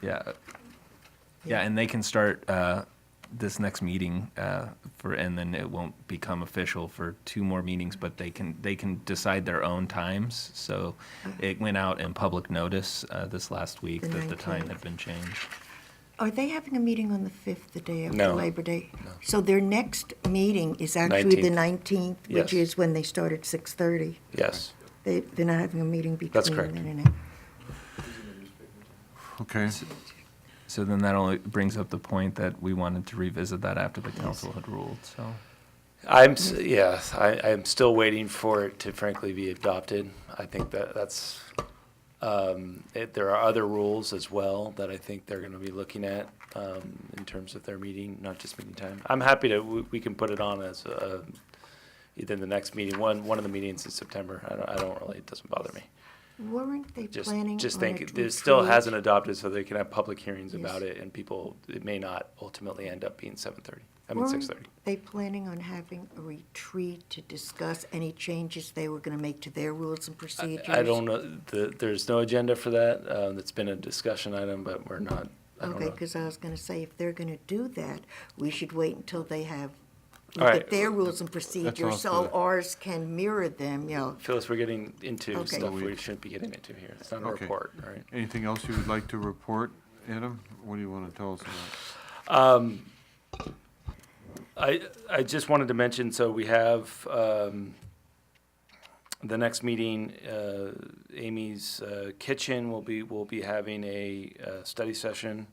Yeah. Yeah, and they can start uh, this next meeting uh, for, and then it won't become official for two more meetings, but they can, they can decide their own times. So it went out in public notice uh, this last week The that the time 19th. had been changed. Are they having a meeting on the 5th, the day after No. Labor Day? So their next meeting is actually the 19th, which Yes. is when they start at 6:30. Yes. They, they're not having a meeting That's between correct. then and now. Okay, So then that only brings up the point that we wanted to revisit that after the council had ruled, so. I'm, s- yeah, I, I'm still waiting for it to frankly be adopted. I think that that's, um, it, there are other rules as well that I think they're gonna be looking at, um, in terms of their meeting, not just meeting time. I'm happy to, we, we can put it on as, uh, either the next meeting, one, one of the meetings in September. I don't, I don't really, it doesn't bother me. Weren't they Just, planning on just a think, it still retreat? hasn't adopted, so they can have public hearings Yes. about it and people, it may not ultimately end up being seven thirty, I mean, Weren't six thirty. They planning on having a retreat to discuss any changes they were going to make to their rules and procedures? I don't know, the, there's no agenda for that, um, it's been a discussion item, but we're not, I don't Okay, know. because I was going to say, if they're going to do that, we should wait until they have, All look right. at their rules and all procedures, so good. ours can mirror them, you know. Phyllis, we're getting into Okay. stuff we shouldn't be getting into here, it's not a Okay. report, all right? anything else you would like to report, Adam? What do you want to tell us about? Um, I, I just wanted to mention, so we have, um, the next meeting, uh, Amy's uh, Kitchen will be, will be having a, uh, study session.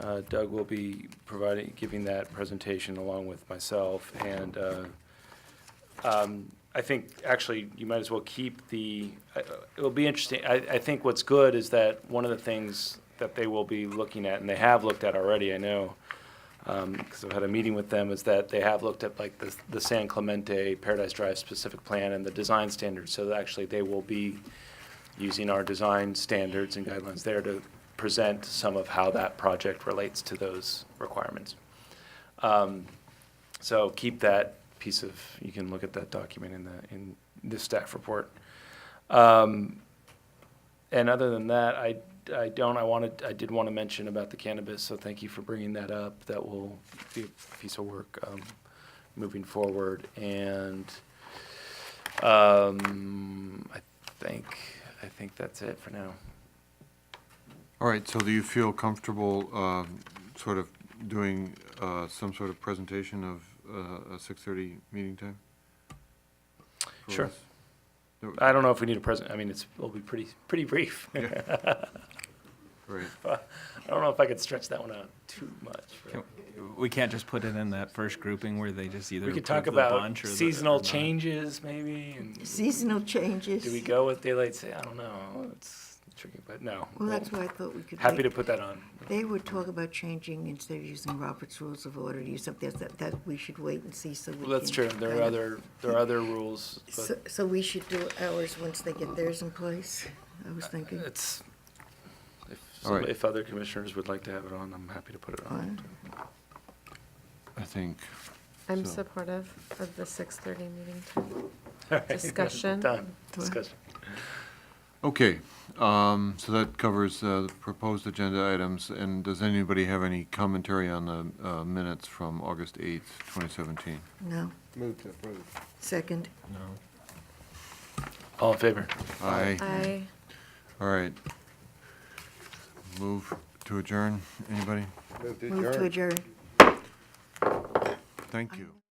Uh, Doug will be providing, giving that presentation along with myself and, uh, um, I think actually you might as well keep the, I- it'll be interesting. I, I think what's good is that one of the things that they will be looking at, and they have looked at already, I know, because Um, I've had a meeting with them, is that they have looked at like the, the San Clemente Paradise Drive specific plan and the design standards. So that actually they will be using our design standards and guidelines there to present some of how that project relates to those requirements. Um, so keep that piece of, you can look at that document in the, in the staff report. Um, And other than that, I, I don't, I wanted, I did want to mention about the cannabis, so thank you for bringing that up. That will be a piece of work um, moving forward. And um, I think, I think that's it for now. All right, so do you feel comfortable um, sort of doing uh, some sort of presentation of uh, a 6:30 meeting time? for Sure. us? No, I don't know if we need a present, I mean, it's, it'll be pretty, pretty brief. I Right, don't know if I could stretch that one out too much. but- Can- We can't just put it in that first grouping where they just either We could approve talk the about bunch or the- or seasonal not. changes, maybe, and Seasonal changes. do we go with daylight sa- I don't know, it's tricky, but no. Well, that's why I thought we could. Happy to wait. put that on. They would talk about changing, instead of using Robert's Rules of Order, to use something else, that, that we should wait and see, so we Well, that's can true, there kind are of- other, there are other rules, So, but so we should do ours once they get theirs in place, I was thinking. it's, if, All right. some- if other commissioners would like to have it on, I'm happy to put it uh, on. I think, I'm So- supportive of the 6:30 meeting time. All right. Discussion. Done, discussion. okay, um, so that covers uh, the proposed agenda items. And does anybody have any commentary on the uh, minutes from August 8th, 2017? No, Move to approve. second, All in favor? Aye. I, All right. Move to adjourn, anybody? Move to move to adjourn. adjourn. Thank you.